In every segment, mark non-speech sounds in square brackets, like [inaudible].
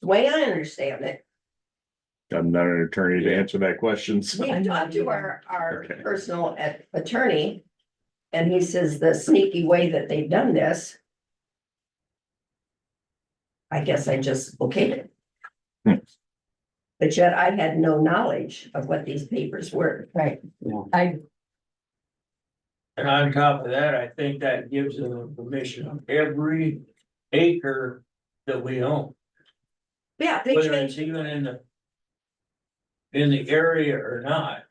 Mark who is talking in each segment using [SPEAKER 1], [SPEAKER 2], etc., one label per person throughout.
[SPEAKER 1] the way I understand it.
[SPEAKER 2] I'm not an attorney to answer that question, so.
[SPEAKER 1] We talked to our, our
[SPEAKER 2] Okay.
[SPEAKER 1] personal at- attorney. And he says the sneaky way that they've done this. I guess I just okayed
[SPEAKER 2] Hmm.
[SPEAKER 1] it. But yet I had no knowledge of what these papers were.
[SPEAKER 3] Right, I,
[SPEAKER 4] And on top of that, I think that gives them permission on every acre that we own,
[SPEAKER 1] Yeah, they
[SPEAKER 4] whether
[SPEAKER 1] changed,
[SPEAKER 4] it's even in the. In the area or not,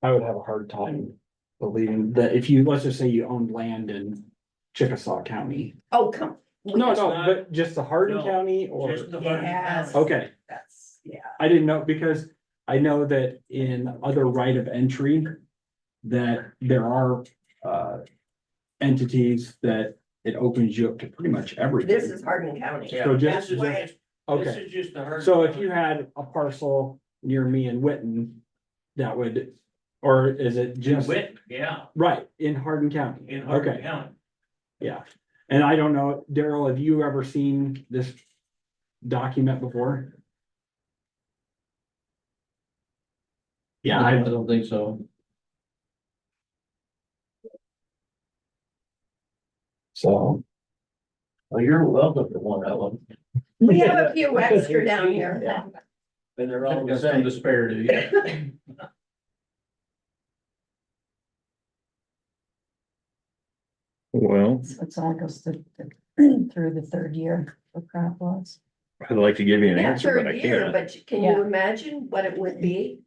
[SPEAKER 5] I would have a hard time believing that if you, let's just say you owned land in Chickasaw County.
[SPEAKER 1] oh, come,
[SPEAKER 5] No,
[SPEAKER 4] It's
[SPEAKER 5] no,
[SPEAKER 4] not-
[SPEAKER 5] but just the Hardin
[SPEAKER 4] no,
[SPEAKER 5] County or,
[SPEAKER 4] just the. Hardin
[SPEAKER 3] Yes.
[SPEAKER 4] County.
[SPEAKER 5] okay,
[SPEAKER 1] that's, yeah,
[SPEAKER 5] I didn't know, because I know that in other right of entry. That there are uh entities that it opens you up to pretty much everything.
[SPEAKER 1] this is Hardin County.
[SPEAKER 4] Yeah.
[SPEAKER 5] So
[SPEAKER 4] This
[SPEAKER 5] just,
[SPEAKER 4] is
[SPEAKER 1] why-
[SPEAKER 4] just- this
[SPEAKER 5] okay,
[SPEAKER 4] is just the Hardin
[SPEAKER 5] so if you
[SPEAKER 4] County.
[SPEAKER 5] had a parcel near me in Witten, that would, or is it just?
[SPEAKER 4] Wit, yeah,
[SPEAKER 5] Right, in Hardin County.
[SPEAKER 4] in
[SPEAKER 5] Okay.
[SPEAKER 4] Hardin County.
[SPEAKER 5] Yeah, and I don't know, Daryl, have you ever seen this document before? Yeah, I,
[SPEAKER 6] don't think so.
[SPEAKER 5] so,
[SPEAKER 6] Well, you're welcome to one of them,
[SPEAKER 1] We have a few extra down here.
[SPEAKER 6] and they're all the same disparity.
[SPEAKER 2] Well,
[SPEAKER 3] so it all goes through, the- [clears throat] through the third year for crop loss.
[SPEAKER 2] I'd like to give you an
[SPEAKER 1] Yeah,
[SPEAKER 2] answer, but
[SPEAKER 1] third
[SPEAKER 2] I
[SPEAKER 1] year,
[SPEAKER 2] can't.
[SPEAKER 1] but can you imagine what it would be?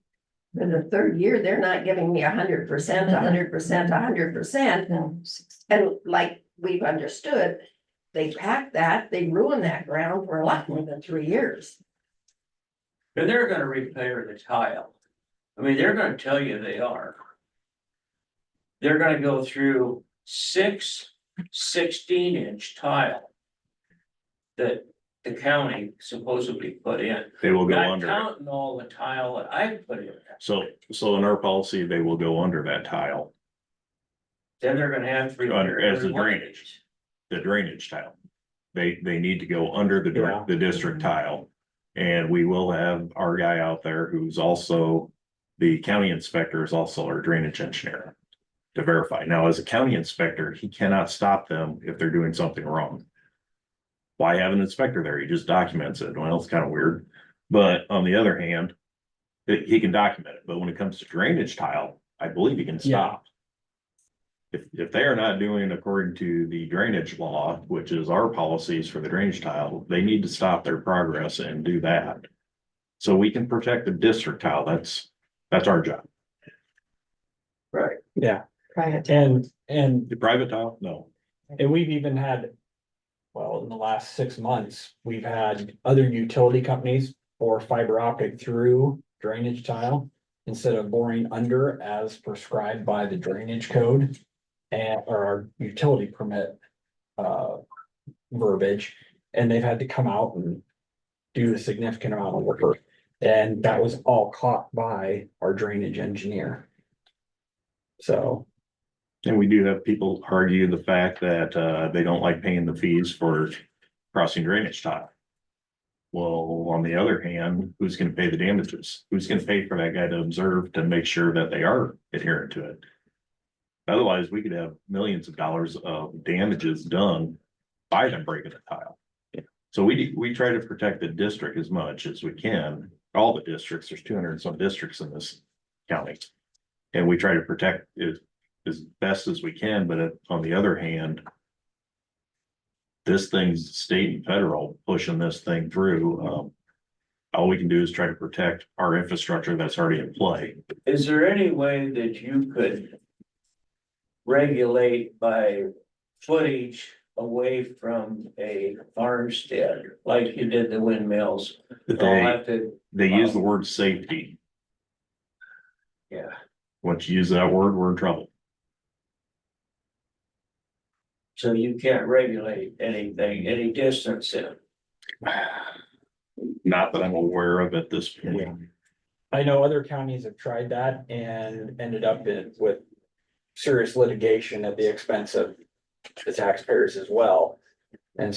[SPEAKER 1] In the third year, they're not giving me hundred percent, hundred percent, hundred percent,
[SPEAKER 3] No, six-
[SPEAKER 1] and like we've understood. They pack that, they ruin that ground for a lot more than three years.
[SPEAKER 4] And they're gonna repair the tile. I mean, they're gonna tell you they are. They're gonna go through six 16 inch tile. That the county supposedly put in,
[SPEAKER 2] They will go
[SPEAKER 4] not
[SPEAKER 2] under. it.
[SPEAKER 4] counting all the tile that I put in.
[SPEAKER 2] So, so in our policy, they will go under that tile,
[SPEAKER 4] Then they're gonna have to.
[SPEAKER 2] Under- as the
[SPEAKER 4] repair one of
[SPEAKER 2] drainage.
[SPEAKER 4] these.
[SPEAKER 2] the drainage tile. They, they need to go under the,
[SPEAKER 5] Yeah.
[SPEAKER 2] dir- the
[SPEAKER 1] Mm-hmm.
[SPEAKER 2] district tile. And we will have our guy out there who's also, the county inspector is also our drainage engineer. To verify. Now, as a county inspector, he cannot stop them if they're doing something wrong. Why have an inspector there? He just documents it. Well, it's kind of weird. But on the other hand. He he can document it, but when it comes to drainage tile, I believe he can
[SPEAKER 5] Yeah.
[SPEAKER 2] stop. If, if they are not doing according to the drainage law, which is our policies for the drainage tile, they need to stop their progress and do that. So we can protect the district tile. That's, that's our job.
[SPEAKER 5] yeah,
[SPEAKER 3] Prior to,
[SPEAKER 5] and, and,
[SPEAKER 2] The private tile, no.
[SPEAKER 5] and we've even had. Well, in the last six months, we've had other utility companies or fiber optic through drainage tile. Instead of boring under as prescribed by the drainage code and, or our utility permit. Uh, verbiage, and they've had to come out and do a significant amount of work. And that was all caught by our drainage engineer. So,
[SPEAKER 2] And we do have people argue the fact that uh they don't like paying the fees for crossing drainage tile. Well, on the other hand, who's gonna pay the damages? Who's gonna pay for that guy to observe to make sure that they are adherent to it? Otherwise, we could have millions of dollars of damages done by them breaking the tile. So we we try to protect the district as much as we can, all the districts, there's two hundred and some districts in this county. And we try to protect it as best as we can, but it- on the other hand. This thing's state and federal pushing this thing through, um. All we can do is try to protect our infrastructure that's already in play.
[SPEAKER 4] Is there any way that you could? Regulate by footage away from a farmstead, like you did the windmills? I'll
[SPEAKER 2] They,
[SPEAKER 4] have to,
[SPEAKER 2] they use the word safety.
[SPEAKER 4] yeah,
[SPEAKER 2] Once you use that word, we're in trouble.
[SPEAKER 4] so you can't regulate anything, any distance in.
[SPEAKER 2] [sighs] Not that I'm aware of at this point.
[SPEAKER 5] Yeah. I know other counties have tried that and ended up in with serious litigation at the expense of the taxpayers as well. And